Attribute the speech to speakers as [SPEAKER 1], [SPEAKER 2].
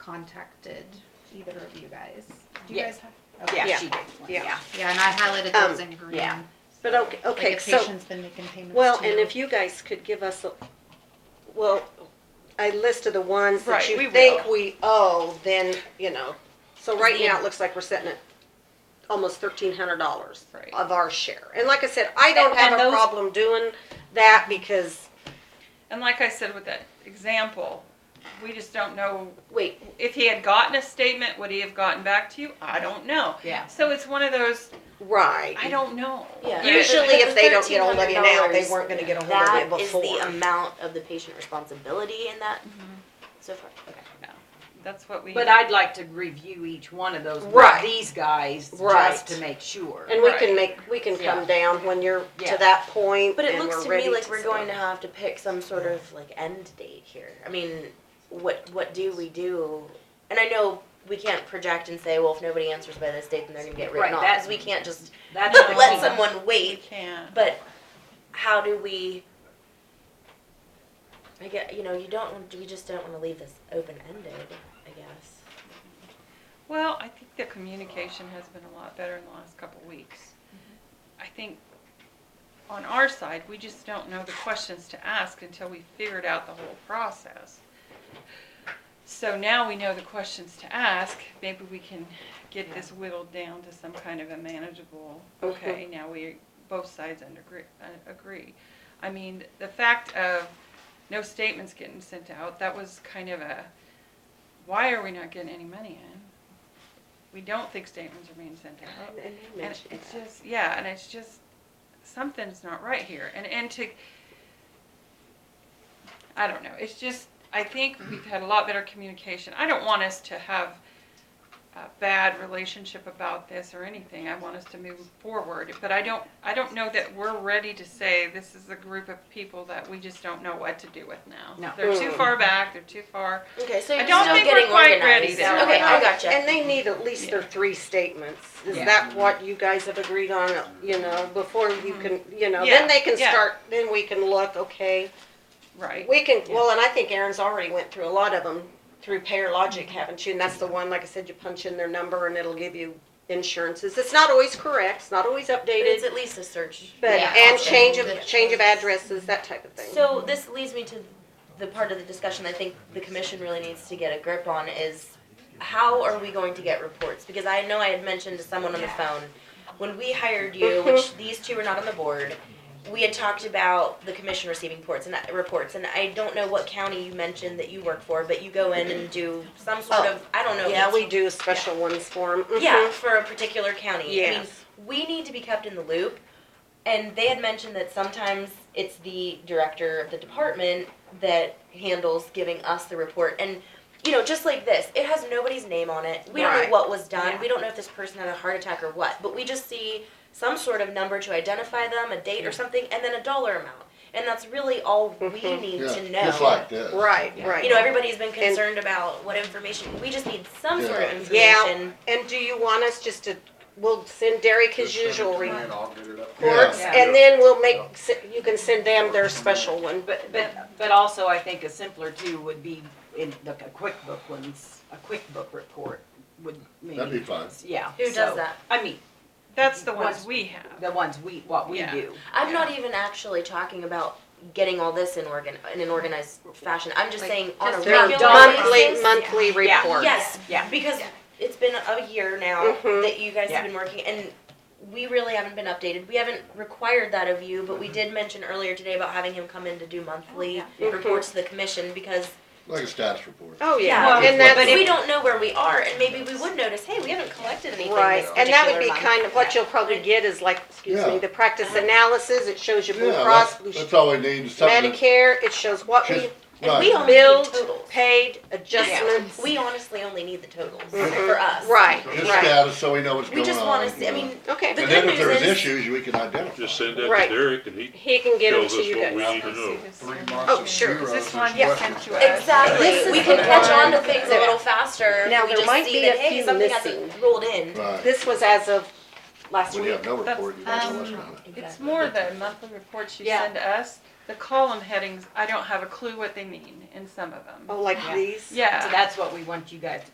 [SPEAKER 1] contacted either of you guys. Do you
[SPEAKER 2] Yeah.
[SPEAKER 1] guys have? Okay.
[SPEAKER 2] Yeah.
[SPEAKER 3] She did, yeah.
[SPEAKER 1] Yeah, and I highlighted those
[SPEAKER 2] Um,
[SPEAKER 1] in green.
[SPEAKER 3] yeah.
[SPEAKER 2] But okay, okay,
[SPEAKER 1] Like the
[SPEAKER 2] so,
[SPEAKER 1] patient's been making payments.
[SPEAKER 2] well,
[SPEAKER 1] to
[SPEAKER 2] and if you guys could give us, a well, a list of the ones that
[SPEAKER 3] Right, we
[SPEAKER 2] you
[SPEAKER 3] will.
[SPEAKER 2] think we owe, then, you know. So right now, it looks like we're sitting at almost thirteen hundred dollars
[SPEAKER 3] Right.
[SPEAKER 2] of our share. And like I said, I don't
[SPEAKER 3] And-
[SPEAKER 2] have
[SPEAKER 3] and
[SPEAKER 2] a
[SPEAKER 3] those-
[SPEAKER 2] problem doing that because,
[SPEAKER 3] And like I said with that example, we just don't know
[SPEAKER 2] wait,
[SPEAKER 3] if he had gotten a statement, would he have gotten back to you? I don't know.
[SPEAKER 4] Yeah.
[SPEAKER 3] So it's one of those,
[SPEAKER 2] right.
[SPEAKER 3] I don't know.
[SPEAKER 5] Yeah.
[SPEAKER 3] You-
[SPEAKER 2] Usually if they don't get hold of you now, they
[SPEAKER 5] $1,300
[SPEAKER 2] weren't gonna get a hold of
[SPEAKER 5] That
[SPEAKER 2] you
[SPEAKER 5] is
[SPEAKER 2] before.
[SPEAKER 5] the amount of the patient responsibility in that
[SPEAKER 4] Mm-hmm.
[SPEAKER 5] so far. Okay.
[SPEAKER 3] That's what we.
[SPEAKER 4] But I'd like to review each one of those
[SPEAKER 2] Right.
[SPEAKER 4] with these guys,
[SPEAKER 2] Right.
[SPEAKER 4] just to make sure.
[SPEAKER 2] And we
[SPEAKER 3] Right.
[SPEAKER 2] can make, we can come
[SPEAKER 4] Yeah.
[SPEAKER 2] down when you're
[SPEAKER 4] Yeah.
[SPEAKER 2] to that point
[SPEAKER 5] But it
[SPEAKER 2] and
[SPEAKER 5] looks
[SPEAKER 2] we're
[SPEAKER 5] to
[SPEAKER 2] ready
[SPEAKER 5] me like we're
[SPEAKER 2] start.
[SPEAKER 5] going to have to pick some sort of like end date here. I mean, what what do we do? And I know we can't project and say, well, if nobody answers by this date, then they're gonna get written
[SPEAKER 4] Right,
[SPEAKER 5] off.
[SPEAKER 4] that-
[SPEAKER 5] 'cause we can't just
[SPEAKER 4] That's the
[SPEAKER 5] let
[SPEAKER 4] thing.
[SPEAKER 5] someone
[SPEAKER 3] We
[SPEAKER 5] wait.
[SPEAKER 3] can't.
[SPEAKER 5] But how do we? I get you know you don't want- we just don't want to leave this open ended. I guess.
[SPEAKER 3] Well, I think the communication has been a lot better in the last couple weeks. I think on our side, we just don't know the questions to ask until we figured out the whole process. So now we know the questions to ask, maybe we can get this whittled down to some kind of a manageable, okay, now we, both sides under, uh, agree. I mean, the fact of no statements getting sent out, that was kind of a, why are we not getting any money in? We don't think statements are being sent out.
[SPEAKER 2] And you
[SPEAKER 3] And
[SPEAKER 2] mentioned
[SPEAKER 3] it's
[SPEAKER 2] that.
[SPEAKER 3] just, yeah, and it's just, something's not right here, and, and to, I don't know, it's just, I think we've had a lot better communication, I don't want us to have a bad relationship about this or anything, I want us to move forward, but I don't, I don't know that we're ready to say this is a group of people that we just don't know what to do with now.
[SPEAKER 4] No.
[SPEAKER 3] They're too
[SPEAKER 2] Mm.
[SPEAKER 3] far back, they're too far,
[SPEAKER 5] Okay, so
[SPEAKER 3] I
[SPEAKER 5] you're
[SPEAKER 3] don't
[SPEAKER 5] still
[SPEAKER 3] think we're
[SPEAKER 5] getting
[SPEAKER 3] quite
[SPEAKER 5] organized.
[SPEAKER 3] ready there.
[SPEAKER 5] Okay,
[SPEAKER 2] Well,
[SPEAKER 5] I gotcha.
[SPEAKER 2] And they need at least their three statements. Is
[SPEAKER 4] Yeah.
[SPEAKER 2] that what you guys have agreed on, you know, before you
[SPEAKER 5] Mm-hmm.
[SPEAKER 2] can, you know,
[SPEAKER 3] Yeah,
[SPEAKER 2] then they can
[SPEAKER 3] yeah.
[SPEAKER 2] start, then we can look, okay.
[SPEAKER 3] right?
[SPEAKER 2] We can, well, and I think Erin's already went through a lot of them through Payer Logic, haven't you? And that's the one, like I said, you punch in their number and it'll give you insurances. It's not always correct, it's not always
[SPEAKER 5] But it's
[SPEAKER 2] updated,
[SPEAKER 5] at least a search.
[SPEAKER 2] but,
[SPEAKER 1] yeah,
[SPEAKER 2] and
[SPEAKER 1] option
[SPEAKER 2] change of,
[SPEAKER 1] that-
[SPEAKER 2] change of addresses, that type of thing.
[SPEAKER 5] So this leads me to the part of the discussion I think the commission really needs to get a grip on is how are we going to get reports? Because I know I had mentioned to someone on the phone, when we hired you, which these two were not on the board, we had talked about the commission receiving reports and that, reports, and I don't know what county you mentioned that you work for, but you go in and do some sort
[SPEAKER 2] Oh.
[SPEAKER 5] of, I don't know. if
[SPEAKER 2] Yeah,
[SPEAKER 5] it's-
[SPEAKER 2] we do special ones for them.
[SPEAKER 5] yeah, for a particular county. I mean,
[SPEAKER 2] Yes.
[SPEAKER 5] we need to be kept in the loop. And they had mentioned that sometimes it's the director of the department that handles giving us the report. And, you know, just like this, it has nobody's name on it. We don't
[SPEAKER 2] Right.
[SPEAKER 5] know what was done.
[SPEAKER 3] Yeah.
[SPEAKER 5] We don't know if this person had a heart attack or what. But we just see some sort of number to identify them, a date or something, and then a dollar amount. And that's really all we
[SPEAKER 2] Mhm.
[SPEAKER 5] need
[SPEAKER 6] Yeah,
[SPEAKER 5] to know.
[SPEAKER 6] Just like this.
[SPEAKER 2] Mm-hmm. Right, right.
[SPEAKER 5] you know, everybody's been concerned about what information. We just need some sort of information.
[SPEAKER 2] Yeah. And do you want us just to, we'll send Derek his usual reports,
[SPEAKER 6] Yeah.
[SPEAKER 2] and then we'll make, you can send them their special one, but,
[SPEAKER 4] But, but, but also I think a simpler too would be in the a QuickBook ones, a QuickBook report would maybe.
[SPEAKER 6] That'd be fun.
[SPEAKER 4] Yeah.
[SPEAKER 5] Who does
[SPEAKER 4] so,
[SPEAKER 5] that?
[SPEAKER 4] I mean,
[SPEAKER 3] That's the ones
[SPEAKER 4] Once-
[SPEAKER 3] we have.
[SPEAKER 4] the ones we, what we
[SPEAKER 3] Yeah.
[SPEAKER 4] do.
[SPEAKER 5] I'm
[SPEAKER 3] Yeah.
[SPEAKER 5] not even actually talking about getting all this in organ in an organized fashion. I'm just
[SPEAKER 3] Like,
[SPEAKER 5] saying on a
[SPEAKER 3] just
[SPEAKER 2] their
[SPEAKER 5] regular
[SPEAKER 2] monthly,
[SPEAKER 5] basis-
[SPEAKER 2] monthly
[SPEAKER 4] Yeah.
[SPEAKER 2] report.
[SPEAKER 5] Yes,
[SPEAKER 4] Yeah.
[SPEAKER 5] because it's been a year now
[SPEAKER 2] Mhm.
[SPEAKER 5] that you guys
[SPEAKER 4] Yeah.
[SPEAKER 5] have been working, and we really haven't been updated. We haven't required that of you, but
[SPEAKER 2] Mm-hmm.
[SPEAKER 5] we did mention earlier today about having him come in to do monthly
[SPEAKER 2] Mhm.
[SPEAKER 5] reports to the commission because
[SPEAKER 6] Like a status report.
[SPEAKER 2] Oh,
[SPEAKER 5] Yeah.
[SPEAKER 2] yeah,
[SPEAKER 6] Well,
[SPEAKER 2] and that's,
[SPEAKER 5] but we don't know where we are, and maybe we would notice, hey, we haven't collected anything.
[SPEAKER 2] right,
[SPEAKER 5] this
[SPEAKER 2] and that would
[SPEAKER 5] particular
[SPEAKER 2] be
[SPEAKER 5] month.
[SPEAKER 2] kind of, what
[SPEAKER 5] Yeah.
[SPEAKER 2] you'll probably get is like, excuse me,
[SPEAKER 6] Yeah.
[SPEAKER 2] the practice analysis, it shows you Blue
[SPEAKER 6] Yeah,
[SPEAKER 2] Cross, Blue
[SPEAKER 6] that's, that's all we need, is something. that-
[SPEAKER 2] Medicare, it shows what we
[SPEAKER 6] just-
[SPEAKER 5] And we
[SPEAKER 6] Right,
[SPEAKER 5] only
[SPEAKER 2] billed,
[SPEAKER 5] need totals.
[SPEAKER 2] paid, adjustments.
[SPEAKER 5] We honestly only need the totals
[SPEAKER 2] Mhm.
[SPEAKER 5] for us.
[SPEAKER 2] Right,
[SPEAKER 6] just
[SPEAKER 2] right,
[SPEAKER 6] status, so we know what's
[SPEAKER 5] We
[SPEAKER 6] going on.
[SPEAKER 5] just want to see. I
[SPEAKER 6] you know.
[SPEAKER 5] mean, the
[SPEAKER 2] okay,
[SPEAKER 6] And then
[SPEAKER 5] good
[SPEAKER 6] if
[SPEAKER 5] news
[SPEAKER 6] there's
[SPEAKER 5] is-
[SPEAKER 6] issues, we can identify.
[SPEAKER 7] Just send that
[SPEAKER 2] Right.
[SPEAKER 7] to Derek and he
[SPEAKER 2] he can get them
[SPEAKER 7] tells
[SPEAKER 2] to
[SPEAKER 7] us
[SPEAKER 2] you
[SPEAKER 7] what we
[SPEAKER 2] guys.
[SPEAKER 7] need to know.
[SPEAKER 2] Oh, sure.
[SPEAKER 3] Is this one
[SPEAKER 1] Yeah.
[SPEAKER 3] sent to us?
[SPEAKER 2] This
[SPEAKER 5] exactly.
[SPEAKER 2] is
[SPEAKER 5] We can
[SPEAKER 2] the
[SPEAKER 5] catch
[SPEAKER 2] one-
[SPEAKER 5] on to things a little faster.
[SPEAKER 2] Now,
[SPEAKER 5] if we
[SPEAKER 2] there
[SPEAKER 5] just
[SPEAKER 2] might
[SPEAKER 5] see
[SPEAKER 2] be
[SPEAKER 5] that,
[SPEAKER 2] a
[SPEAKER 5] hey,
[SPEAKER 2] few
[SPEAKER 5] something
[SPEAKER 2] missing.
[SPEAKER 5] hasn't rolled in.
[SPEAKER 6] Right,
[SPEAKER 2] This was as of last
[SPEAKER 6] when
[SPEAKER 2] week.
[SPEAKER 6] you have no
[SPEAKER 3] That's-
[SPEAKER 6] report, you don't know what's
[SPEAKER 3] um,
[SPEAKER 6] going on.
[SPEAKER 3] It's more the monthly reports you
[SPEAKER 2] Yeah.
[SPEAKER 3] send us. the column headings, I don't have a clue what they mean in some of them.
[SPEAKER 2] Oh, like
[SPEAKER 4] Yeah.
[SPEAKER 2] these?
[SPEAKER 3] Yeah.
[SPEAKER 4] So that's what we want you guys to